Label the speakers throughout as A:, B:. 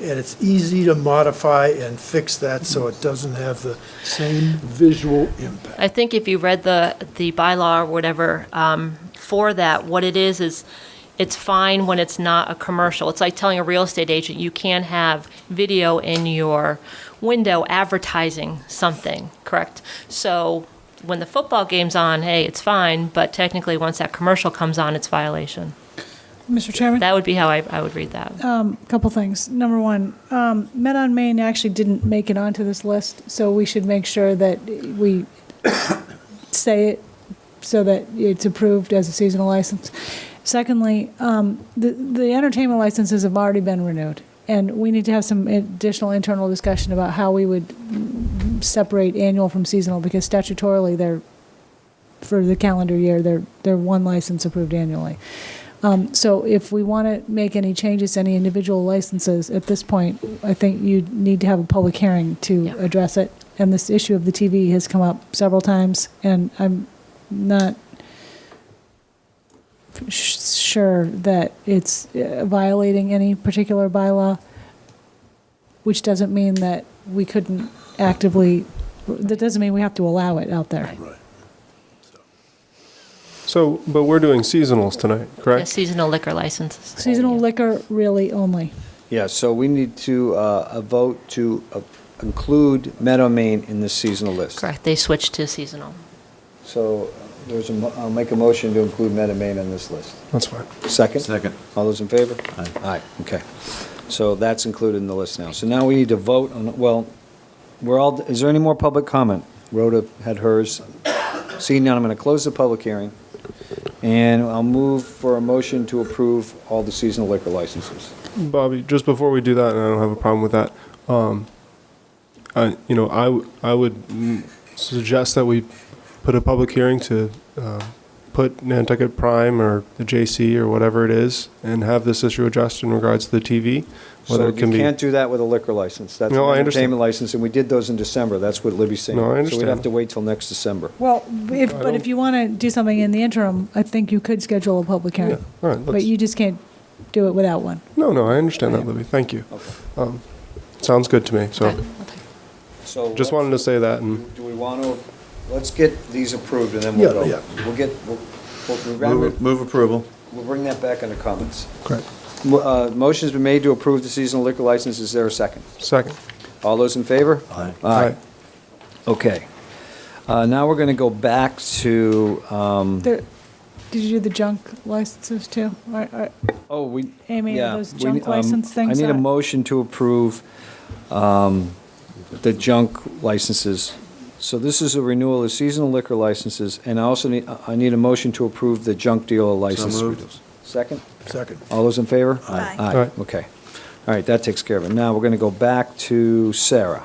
A: and it's easy to modify and fix that so it doesn't have the same visual impact.
B: I think if you read the, the bylaw or whatever um, for that, what it is, is it's fine when it's not a commercial. It's like telling a real estate agent, you can have video in your window advertising something, correct? So when the football game's on, hey, it's fine, but technically, once that commercial comes on, it's violation.
C: Mr. Chairman,
B: That would be how I, I would read that.
C: a couple things. Number one, um, Met on Main actually didn't make it onto this list, so we should make sure that we say it so that it's approved as a seasonal license. Secondly, um, the the entertainment licenses have already been renewed, and we need to have some additional internal discussion about how we would separate annual from seasonal, because statutorily, they're, for the calendar year, they're, they're one license approved annually. Um, So if we want to make any changes, to any individual licenses, at this point, I think you need to have a public hearing to
B: Yeah.
C: address it. And this issue of the TV has come up several times, and I'm not sh- sure that it's uh, violating any particular bylaw, which doesn't mean that we couldn't actively, that doesn't mean we have to allow it out there.
A: Right.
D: So, but we're doing seasonals tonight,
B: Yeah,
D: correct?
B: Seasonal liquor licenses.
C: Seasonal liquor really only.
E: Yeah, so we need to, uh, a vote to uh, include Meadow Main in the seasonal list.
B: Correct, they switched to seasonal.
E: So there's a, mo- I'll make a motion to include Meadow Main on this list.
D: That's fine.
E: Second?
F: Second.
E: All those in favor?
F: Aye.
E: Aye, okay. So that's included in the list now. So now we need to vote on, well, we're all, is there any more public comment? Rhoda had hers. Seeing none, I'm going to close the public hearing, and I'll move for a motion to approve all the seasonal liquor licenses.
D: Bobby, just before we do that, and I don't have a problem with that, um, I, you know, I, w- I would mm, suggest that we put a public hearing to, uh, put Nantucket Prime or the JC or whatever it is, and have this issue addressed in regards to the TV, whether
E: So
D: it can
E: you
D: be.
E: can't do that with a liquor license. That's an
D: No, I understand.
E: entertainment license, and we did those in December. That's what Libby's saying.
D: No, I
E: So we'd have
D: understand.
E: to wait till next December.
C: Well, if, but if
D: don't-
C: you want to do something in the interim, I think you could schedule a public
D: Yeah,
C: hearing.
D: all right,
C: But
D: let's-
C: you just can't do it without one.
D: No, no, I understand that, Libby, thank you. Um, Sounds good to me, so,
B: Okay.
E: So
D: just wanted to say that, and,
E: Do we want to, let's get these approved, and then we'll go.
A: Yeah,
E: We'll get, we'll, we'll- we'll
F: Move move approval.
E: we'll bring that back under comments.
D: correct,
E: Mo- uh, Motion's been made to approve the seasonal liquor license. Is there a second?
D: second.
E: All those in favor?
F: Aye.
E: Aye. Okay. Uh, Now we're going to go back to,
D: Mm.
E: um,
C: There, did you do the junk licenses too? Or- or-
E: oh, we.
C: Amy, are
E: yeah,
C: those
E: we
C: junk
E: ne- um,
C: license things
E: I need a
C: on-
E: motion to approve um, the junk licenses. So this is a renewal of seasonal liquor licenses, and I also need, I need a motion to approve the junk dealer license.
F: moved.
E: renewals. Second?
A: Second.
E: All those in favor?
F: Aye.
E: Aye,
D: Aye.
E: okay. All right, that takes care of it. Now, we're going to go back to Sarah.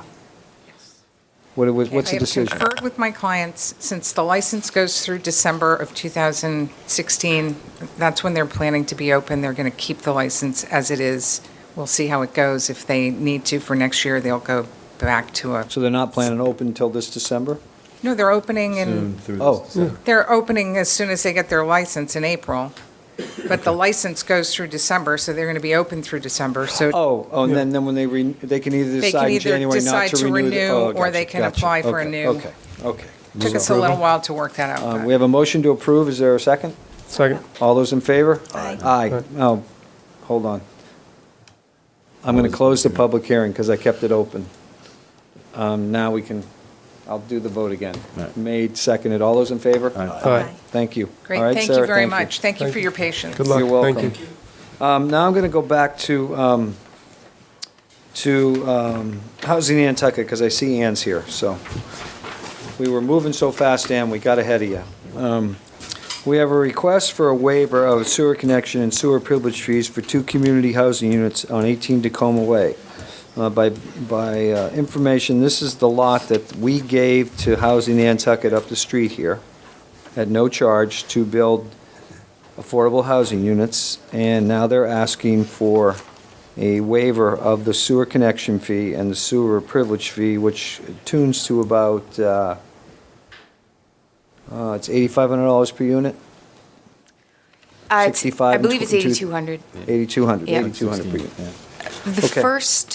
E: What, it was- what's the
G: I
E: decision?
G: have conferred with my clients, since the license goes through December of 2016, that's when they're planning to be open, they're going to keep the license as it is. We'll see how it goes. If they need to for next year, they'll go back to a,
E: So they're not planning to open until this December?
G: no, they're opening
F: Soon
G: in,
F: through this.
E: Oh,
G: they're opening as soon as they get their license in April, but the license goes through December, so they're going to be open through December, so
E: oh, oh, and then, then when they, re- they can either
G: They can
E: decide in
G: either
E: January not
G: decide
E: to
G: to
E: renew. the-
G: renew,
E: oh,
G: or they
E: gotcha,
G: can
E: gotcha.
G: apply for a
E: Okay,
G: new-
E: Okay, okay.
G: took us a little while to work that out.
E: Uh,
G: but-
E: We have a motion to approve, is there a second?
D: Second,
E: All those in favor? Aye. Aye. Oh, hold on. I'm going to close the public hearing because I kept it open. Um, Now we can, I'll do the vote again.
F: Right.
E: Made, seconded. All those in favor?
F: Aye.
D: aye,
E: Thank you.
G: Great,
E: All right,
G: thank you
E: Sarah,
G: very much. Thank you for your patience.
D: good luck,
E: You're welcome.
D: thank you.
E: Um, Now I'm going to go back to, um, to um, Housing Nantucket because I see Ann's here, so. We were moving so fast, Ann, we got ahead of you. Um, We have a request for a waiver of sewer connection and sewer privilege fees for two community housing units on 18 Tacoma Way. Uh, By, by uh, information, this is the lot that we gave to Housing Nantucket up the street here at no charge to build affordable housing units, and now they're asking for a waiver of the sewer connection fee and the sewer privilege fee, which tunes to about, uh, uh, it's $8,500 per unit?
H: Uh, it's-
E: 65
H: I
E: and
H: believe Uh, it's
E: 22
H: 8,200.
E: 8,200,
H: Yeah.
E: 8,200 per unit.
H: The
E: Okay.
H: first